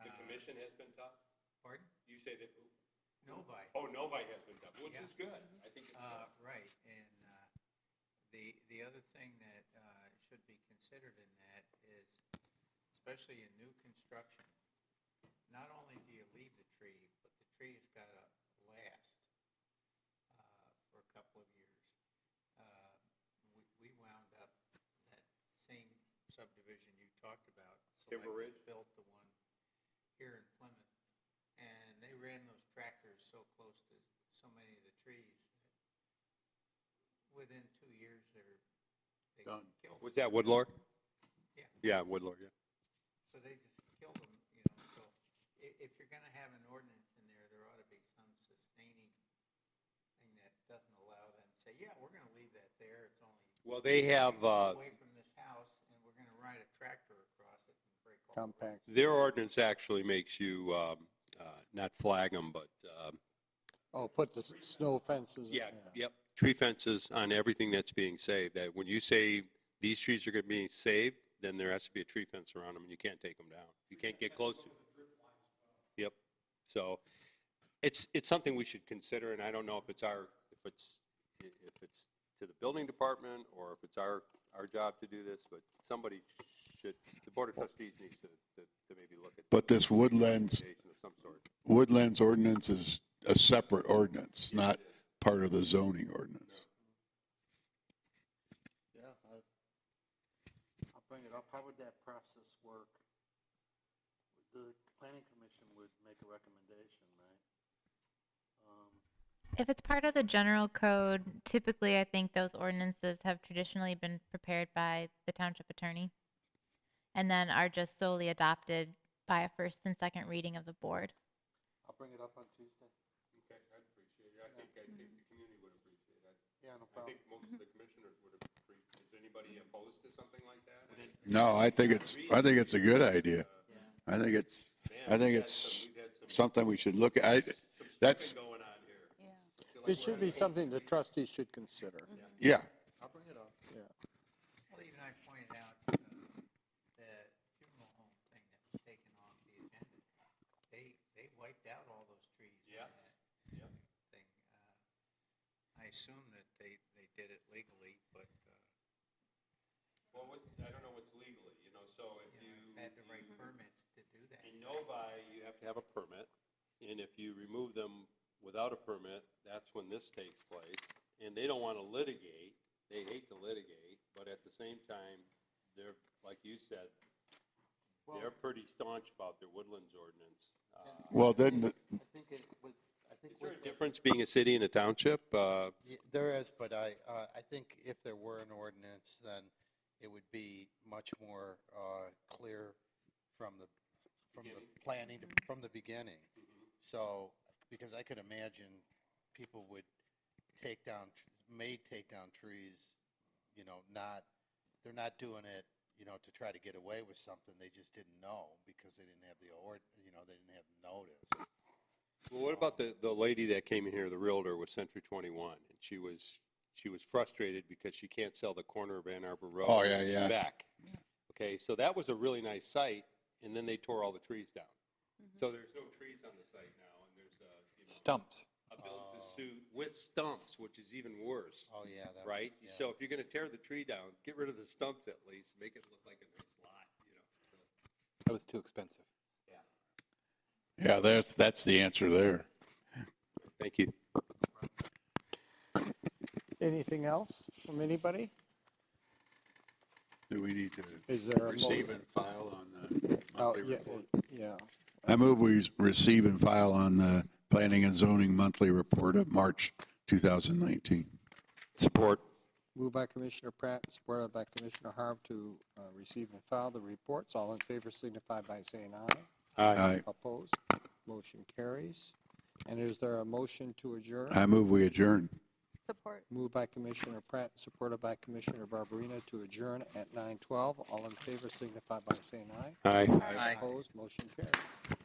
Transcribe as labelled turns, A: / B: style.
A: The
B: Uh,
A: commission has been tough?
B: Pardon?
A: You say that,
B: Nobody.
A: oh, nobody has been tough, which
B: Yeah.
A: is good. I think it's
B: Uh,
A: good.
B: Right, and uh, the, the other thing that uh, should be considered in that is, especially in new construction, not only do you leave the tree, but the tree has got to last uh, for a couple of years. Uh, We we wound up that same subdivision you talked about.
A: Timber
B: Selectmen
A: Ridge?
B: Built the one here in Plymouth, and they ran those tractors so close to so many of the trees that within two years, they're, they
A: Done.
B: killed.
A: Was that Woodlark?
B: Yeah.
A: Yeah, Woodlark, yeah.
B: So they just killed them, you know, so i- if you're gonna have an ordinance in there, there ought to be some sustaining thing that doesn't allow them to say, yeah, we're gonna leave that there, it's only.
A: Well, they have, uh,
B: Away from this house, and we're gonna ride a tractor across it and break all. the roads."
C: compact.
A: their ordinance actually makes you, um, uh, not flag them, but, um,
C: Oh, put the s- snow fences. in,
A: yeah, yep, tree fences on everything that's being saved. That when you say these trees are gonna be saved, then there has to be a tree fence around them and you can't take them down. You can't get close to. Yep, so it's, it's something we should consider and I don't know if it's our, if it's, if it's to the building department or if it's our, our job to do this, but somebody should, the board of trustees needs to, to to maybe look at.
D: But this woodlands,
A: Presentation Of some sort.
D: woodlands ordinance is a separate ordinance, not part of the zoning ordinance.
C: Yeah, I, I'll bring it up. How would that process work? The planning commission would make a recommendation, right? Um,
E: If it's part of the general code, typically I think those ordinances have traditionally been prepared by the township attorney and then are just solely adopted by a first and second reading of the board.
C: I'll bring it up on Tuesday.
A: Okay, I'd appreciate it. I think, I think the community would appreciate it.
C: Yeah, no
A: I
C: problem.
A: think most of the commissioners would appreciate, is anybody opposed to something like that? Uh,
D: No, I think it's, I think it's a good idea. I think it's, I think it's something we should look at. I- That's,
A: Going on here.
C: It should be something the trustees should consider.
D: yeah,
C: I'll bring it up. Yeah.
B: Well, even I pointed out uh, the funeral home thing that was taken off the agenda. They, they wiped out all those trees. on
A: Yeah,
B: that
A: yeah.
B: Thing. Uh, I assume that they, they did it legally, but uh,
A: Well, what, I don't know what's legally, you know, so if
B: you
A: you.
B: know, had the right permits to do that.
A: In Novi, you have to have a permit, and if you remove them without a permit, that's when this takes place. And they don't want to litigate, they hate to litigate, but at the same time, they're, like you said, they're pretty staunch about their woodlands ordinance. Uh,
D: well, then, the-
C: I think it would, I think.
A: Is there
C: with
A: a
C: the-
A: difference being a city and a township? Uh,
F: Ye- There is, but I, uh, I think if there were an ordinance, then it would be much more uh, clear from the, from the
A: Beginning.
F: planning, to- from the beginning. So, because I could imagine people would take down, tr- may take down trees, you know, not, they're not doing it, you know, to try to get away with something. They just didn't know because they didn't have the ord, you know, they didn't have notice.
A: Well, what about the, the lady that came in here, the realtor with Century 21? And she was, she was frustrated because she can't sell the corner of Ann Arbor Road.
D: Oh, yeah, yeah.
A: Back. Okay, so that was a really nice site, and then they tore all the trees down. So there's no trees on the site now, and there's a, you know. Stumps. A build-to-suit with stumps, which is even worse,
F: Oh, yeah. that was-
A: right?
F: yeah.
A: So if you're going to tear the tree down, get rid of the stumps at least, make it look like a nice lot, you know, so.
G: That was too expensive.
D: yeah, that's, that's the answer there.
A: Thank you.
C: Anything else from anybody?
D: Do we need to
C: Is there a? mo-
D: receive and file on the
C: Oh,
D: monthly
C: yeah,
D: report?
C: yeah.
D: I move we receive and file on the planning and zoning monthly report of March 2019.
A: Support.
C: Moved by Commissioner Pratt, supported by Commissioner Harv to uh, receive and file the reports. All in favor signify by saying aye.
D: Aye.
C: Opposed? Motion carries. And is there a motion to adjourn?
D: I move we adjourn.
H: Support.
C: Moved by Commissioner Pratt, supported by Commissioner Barberina to adjourn at 9:12. All in favor signify by saying aye.
A: Aye.
C: Aye. Opposed? Motion carries.